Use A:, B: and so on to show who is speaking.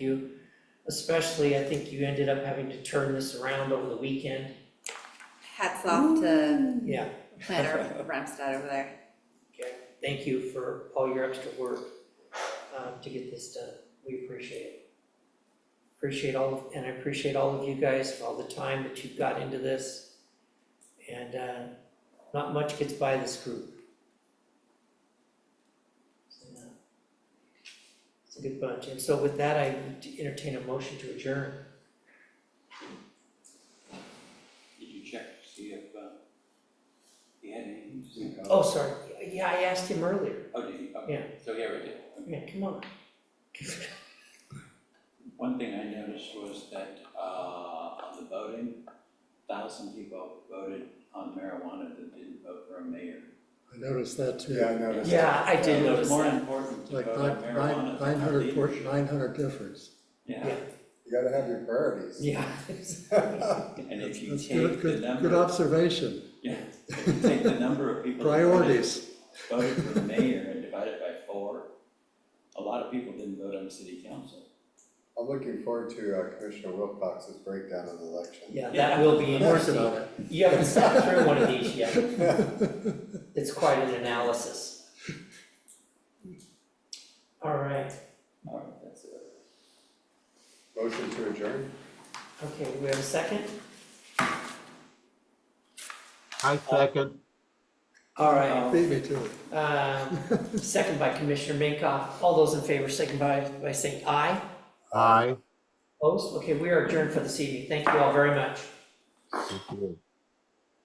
A: you. Especially, I think you ended up having to turn this around over the weekend.
B: Hats off to
A: Yeah,
B: planner Ramstad over there.
A: okay. Thank you for all your extra work um, to get this done. We appreciate it. Appreciate all, of- and I appreciate all of you guys for all the time that you've got into this. And uh, not much gets by this group. So, uh, It's a good bunch. And so with that, I entertain a motion to adjourn.
C: Did you check to see if, uh, he had any?
A: Oh, sorry, yeah, I asked him earlier,
C: Oh, did he? Okay. So here we did.
A: yeah, come on.
C: One thing I noticed was that, uh, on the voting, thousand people voted on marijuana that didn't vote for a mayor.
D: I noticed that too.
E: Yeah, I noticed.
A: Yeah, I did
C: It
A: notice
C: was more
A: that,
C: important to
D: Like
C: vote on
D: nine, nine,
C: Uh, marijuana than
D: nine
C: our
D: hundred,
C: leaders.
D: nine hundred difference.
C: Yeah,
E: You gotta have your priorities.
A: yeah.
C: and if you
D: That's good,
C: take the
D: good, good
C: number,
D: observation,
C: yeah, if you take the number of people. that voted-
D: priorities.
C: Voted for mayor and divided by four, a lot of people didn't vote on city council.
E: I'm looking forward to uh, Commissioner Wilcox's breakdown of the election.
A: Yeah, that will be
D: I'm Working
A: interesting,
D: on it.
A: you haven't sat through one of these yet. It's quite an analysis. All right,
C: All right, that's it.
E: Motion to adjourn?
A: okay, we have a second?
F: I second.
A: All right,
D: Beat me to it.
A: um, second by Commissioner Minkoff, all those in favor, second by, by saying aye.
F: Aye.
A: Opposed, okay, we are adjourned for this evening, thank you all very much.
F: Thank you.